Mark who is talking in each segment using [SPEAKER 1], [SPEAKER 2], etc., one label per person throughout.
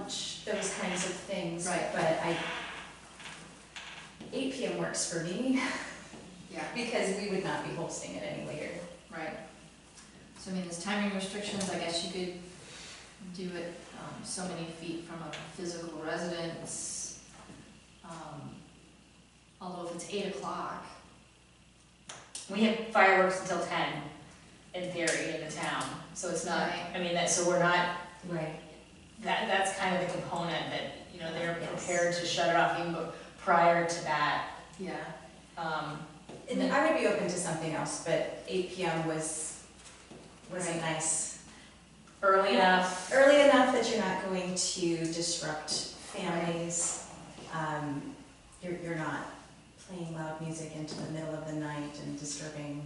[SPEAKER 1] those kinds of things.
[SPEAKER 2] Right.
[SPEAKER 1] But I, eight PM works for me,
[SPEAKER 2] Yeah,
[SPEAKER 1] because we would not be hosting it any later.
[SPEAKER 2] right. So I mean, there's timing restrictions, I guess you could do it um, so many feet from a physical residence. um, Although if it's eight o'clock,
[SPEAKER 3] We have fireworks until ten, in theory, in the town, so it's not,
[SPEAKER 2] Right.
[SPEAKER 3] I mean, that, so we're not,
[SPEAKER 1] Right.
[SPEAKER 3] that, that's kind of the component that, you know, they're
[SPEAKER 1] Yes.
[SPEAKER 3] prepared to shut it off even bef- prior to that,
[SPEAKER 2] yeah,
[SPEAKER 3] um,
[SPEAKER 1] And I would be open to something else, but eight PM was, was a
[SPEAKER 2] Right.
[SPEAKER 1] nice,
[SPEAKER 3] early enough.
[SPEAKER 1] early enough that you're not going to disrupt families. Um, You're, you're not playing loud music into the middle of the night and disturbing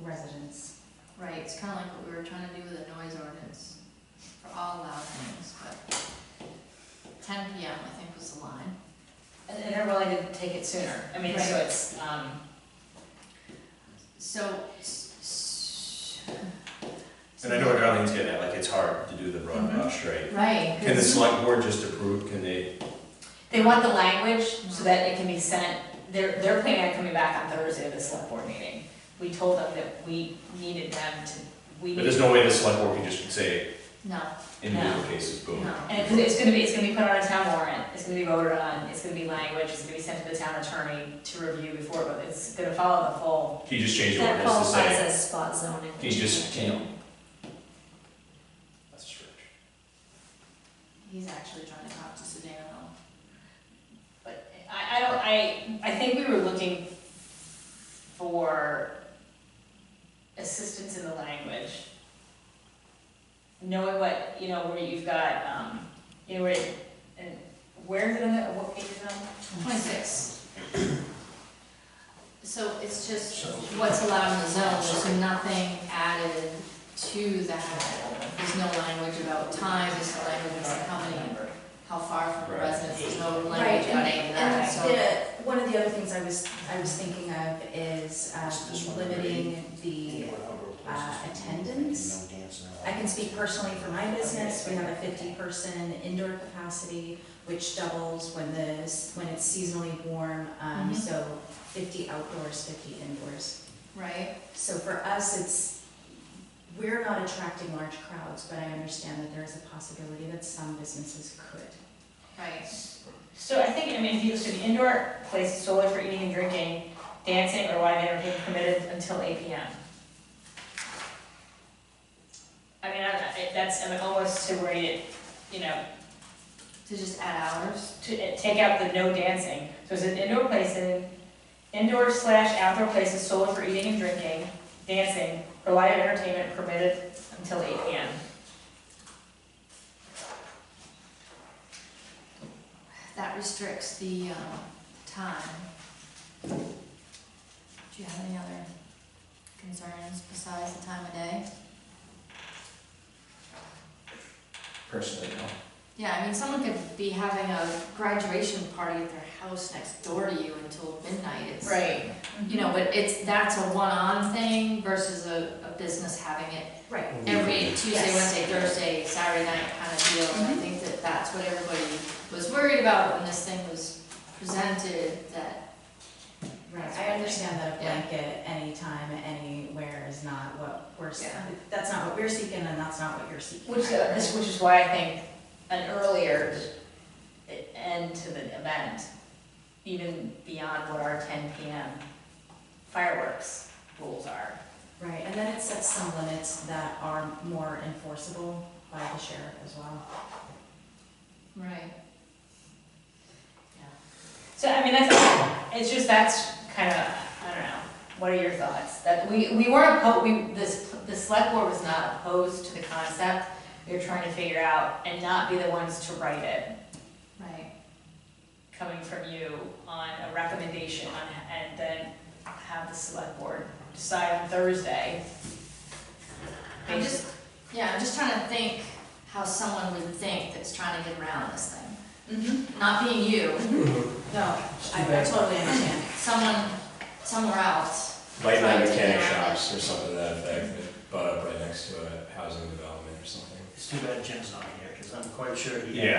[SPEAKER 1] residents.
[SPEAKER 2] right, it's kinda like what we were trying to do with the noise ordinance for all loud things, but ten PM, I think, was the line.
[SPEAKER 3] And and they're willing to take it sooner, I mean, so
[SPEAKER 2] Right.
[SPEAKER 3] it's, um,
[SPEAKER 2] So, s- s-
[SPEAKER 4] And I know what Darlene's getting at, like, it's hard to do the broad
[SPEAKER 3] Mm-hmm.
[SPEAKER 4] brush, right?
[SPEAKER 2] right,
[SPEAKER 4] Can the
[SPEAKER 2] 'cause-
[SPEAKER 4] select board just approve, can they,
[SPEAKER 3] they want the language so that it can be sent, they're, they're planning on coming back on Thursday to the select board meeting. We told them that we needed them to, we
[SPEAKER 4] but
[SPEAKER 3] needed
[SPEAKER 4] there's no way the select board can just say
[SPEAKER 2] no,
[SPEAKER 4] individual cases, boom.
[SPEAKER 2] no.
[SPEAKER 3] And it's, it's gonna be, it's gonna be put on a town warrant, it's gonna be voted on, it's gonna be language, it's gonna be sent to the town attorney to review before, but it's gonna follow the full.
[SPEAKER 4] Can you just change the ordinance to say,
[SPEAKER 3] as spot zoning.
[SPEAKER 4] can you just, can you? That's true.
[SPEAKER 2] He's actually trying to talk to Sedano.
[SPEAKER 3] But I, I don't, I, I think we were looking for assistance in the language. Knowing what, you know, where you've got, um, you know, where, it- and where is it on the, what page is it on?
[SPEAKER 2] Twenty-six. So it's just
[SPEAKER 4] So-
[SPEAKER 2] what's allowed in the zone, there's nothing added to that. There's no language about time, there's no language about how many, how far from the
[SPEAKER 4] Right.
[SPEAKER 2] residence, there's no
[SPEAKER 1] Right,
[SPEAKER 2] language
[SPEAKER 1] and,
[SPEAKER 2] about any of that, so.
[SPEAKER 1] and the, one of the other things I was, I was thinking of is um, limiting the, uh, attendance. I can speak personally for my business, we have a fifty-person indoor capacity, which doubles when the, s- when it's seasonally warm, um,
[SPEAKER 2] Mhm.
[SPEAKER 1] so fifty outdoors, fifty indoors.
[SPEAKER 2] Right,
[SPEAKER 1] So for us, it's, we're not attracting large crowds, but I understand that there is a possibility that some businesses could.
[SPEAKER 2] right,
[SPEAKER 3] So I think, I mean, if you, so the indoor place is solely for eating and drinking, dancing or live entertainment permitted until eight P M. I mean, I, I, that's, I mean, almost to where you, you know,
[SPEAKER 2] to just add hours,
[SPEAKER 3] to eh, take out the no dancing. So it's an indoor place and indoor slash outdoor place is solely for eating and drinking, dancing or live entertainment permitted until eight P M.
[SPEAKER 2] that restricts the, um, time. Do you have any other concerns besides the time of day?
[SPEAKER 4] Personally, no.
[SPEAKER 2] Yeah, I mean, someone could be having a graduation party at their house next door to you until midnight. It's,
[SPEAKER 3] Right.
[SPEAKER 2] You know, but it's, that's a one-on thing versus a, a business having it
[SPEAKER 1] Right.
[SPEAKER 2] every Tuesday,
[SPEAKER 1] Yes.
[SPEAKER 2] Wednesday, Thursday, Saturday night kind of deal. And I think that that's what everybody was worried about when this thing was presented, that,
[SPEAKER 1] Right,
[SPEAKER 2] That's
[SPEAKER 1] I
[SPEAKER 2] what I
[SPEAKER 1] understand that a
[SPEAKER 2] Yeah.
[SPEAKER 1] blanket anytime, anywhere is not what we're, s-
[SPEAKER 2] Yeah.
[SPEAKER 1] that's not what we're seeking and that's not what you're seeking.
[SPEAKER 3] Which, uh, this, which is why I think an earlier end to the event, even beyond what our ten PM fireworks rules are.
[SPEAKER 1] Right, and then it sets some limits that are more enforceable by the sheriff as well.
[SPEAKER 2] right.
[SPEAKER 3] So, I mean, that's, it's just, that's kind of, I don't know, what are your thoughts? That, we, we weren't opposed, we, this, the select board was not opposed to the concept. We were trying to figure out and not be the ones to write it,
[SPEAKER 2] Right.
[SPEAKER 3] coming from you on a recommendation on, and then have the select board decide on Thursday.
[SPEAKER 2] I'm just, yeah, I'm just trying to think how someone would think that's trying to get around this thing. Not being you,
[SPEAKER 1] No, I I totally understand.
[SPEAKER 2] someone somewhere else.
[SPEAKER 4] Like
[SPEAKER 2] Trying
[SPEAKER 4] night
[SPEAKER 2] to
[SPEAKER 4] mechanic
[SPEAKER 2] get around it.
[SPEAKER 4] shops or something to that effect, that butt up right next to a housing development or something.
[SPEAKER 5] It's too bad Jim's not here, because I'm quite sure he.
[SPEAKER 4] Yeah.